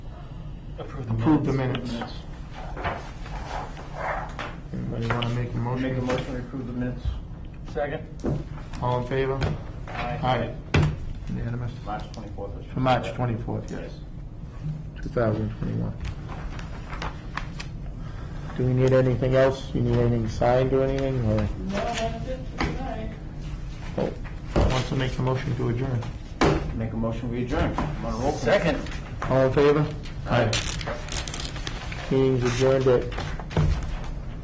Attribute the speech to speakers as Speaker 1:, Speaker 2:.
Speaker 1: Approve the minutes.
Speaker 2: Approve the minutes. Anybody want to make
Speaker 1: Make
Speaker 2: a
Speaker 1: a
Speaker 2: motion?
Speaker 1: motion to approve the minutes. Second?
Speaker 2: All in favor? Aye. Unanimous.
Speaker 1: March 24th. is-
Speaker 2: For March 24th, yes, 2021. Do we need anything else? You need anything signed or anything, or? No, Oh, wants to make the motion to adjourn.
Speaker 1: Make a motion, we adjourn. I'm on a roll call. Second.
Speaker 2: All in favor? Aye. Meeting's adjourned at